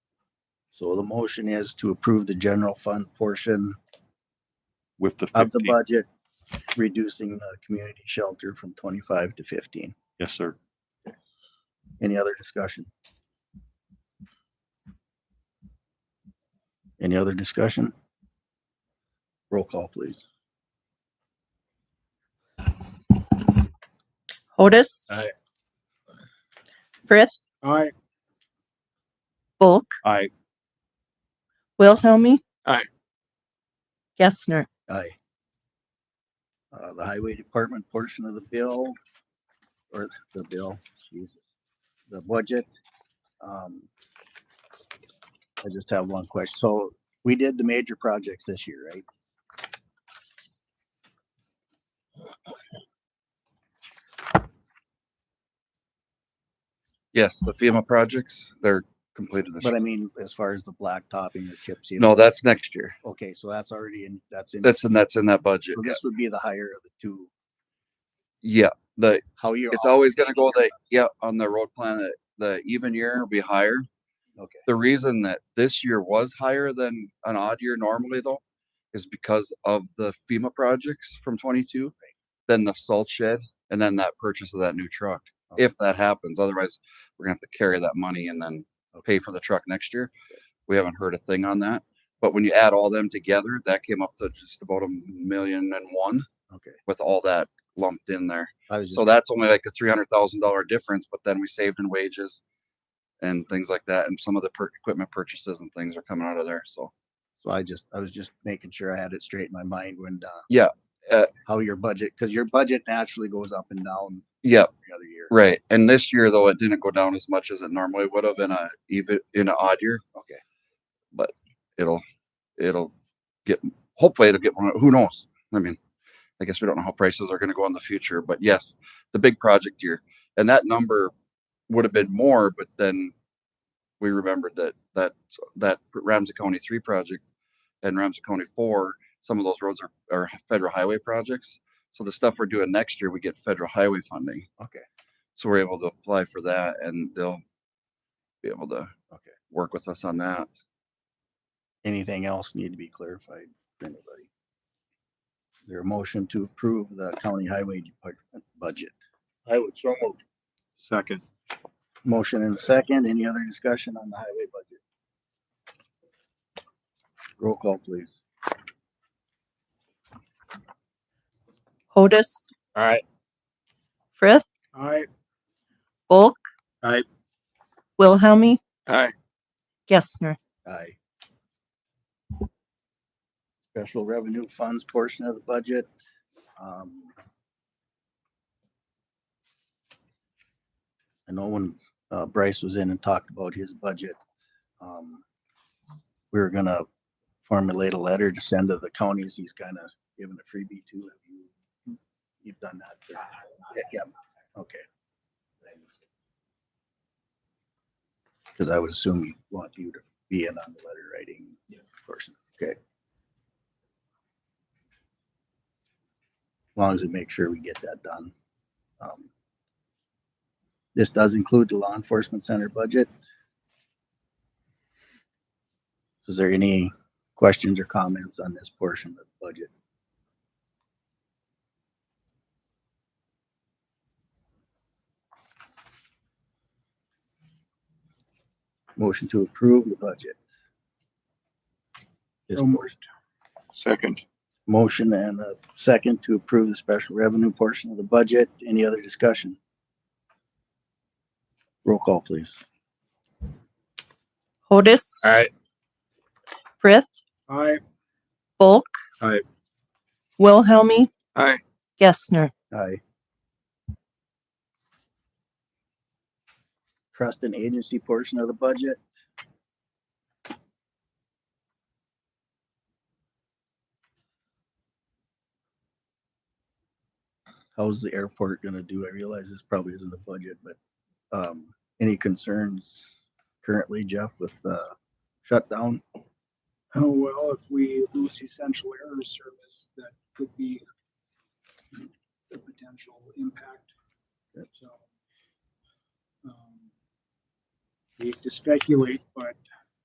So the motion is to approve the general fund portion with the of the 15. budget, reducing the community shelter from twenty-five to fifteen. Yes, sir. Any other discussion? Any other discussion? Roll call, please. Otis. Aye. Frith, Aye. Bulk, I, Wilhelmie. Aye. Gessner. Aye. Uh, the highway department portion of the bill, or the bill, Jesus, the budget. um, I just have one question. So we did the major projects this year, right? Yes, the FEMA projects, they're completed this But I year. mean, as far as the black topping or chip seal. No, that's next year. Okay, so that's already in, that's in, That's, and that's in that budget. so yeah. this would be the higher of the two. Yeah, the, How you're. it's always gonna go that, yeah, on the road plan, uh, the even year will be higher. Okay. The reason that this year was higher than an odd year normally though, is because of the FEMA projects from twenty-two. Then the salt shed and then that purchase of that new truck, Okay. if that happens. Otherwise, we're gonna have to carry that money and then pay for the truck next year. We haven't heard a thing on that. But when you add all them together, that came up to just about a million and one Okay, with all that lumped in there. I was So just, that's only like a three hundred thousand dollar difference, but then we saved in wages and things like that, and some of the per- equipment purchases and things are coming out of there. So so I just, I was just making sure I had it straight in my mind when, uh. Yeah, uh, How your budget, cause your budget naturally goes up and down yeah, every other year. right. And this year though, it didn't go down as much as it normally would have in a even in an odd year. Okay. But it'll it'll get hopefully it'll get more. Who knows? I mean, I guess we don't know how prices are going to go in the future. But yes, the big project year, and that number would have been more, but then we remembered that that that Ramsey County three project and Ramsey County four, some of those roads are, are federal highway projects. So the stuff we're doing next year, we get federal highway funding. Okay. So we're able to apply for that and they'll be able to Okay. work with us on that. Anything else need to be clarified for anybody? Is There a motion to approve the county highway department budget. I would so move. Second. Motion and second, any other discussion on the highway budget? Roll call, please. Otis. Aye. Frith, Aye. Bulk. Aye. Wilhelmie. Aye. Gessner. Aye. Special revenue funds portion of the budget. um, I know when uh, Bryce was in and talked about his budget, um, we were gonna formulate a letter to send to the counties he's kind of given a freebie to. Have you- You've done that? Yeah, yeah, okay. Because I would assume you want you to be in on the letter writing person. Okay. As long as we make sure we get that done. Um, This does include the law enforcement center budget. So Is there any questions or comments on this portion of the budget? Motion to approve the budget. This So moved. portion. Second. Motion and a second to approve the special revenue portion of the budget. Any other discussion? Roll call, please. Otis. Aye. Frith, Aye. Bulk. Aye. Wilhelmie. Aye. Gessner. Aye. Trust and agency portion of the budget. How's the airport gonna do? I realize this probably isn't a budget, but, um, any concerns currently, Jeff, with the shutdown? Oh, well, if we lose essential air service, that could be the potential impact. Yep. So, um, Hate to speculate, but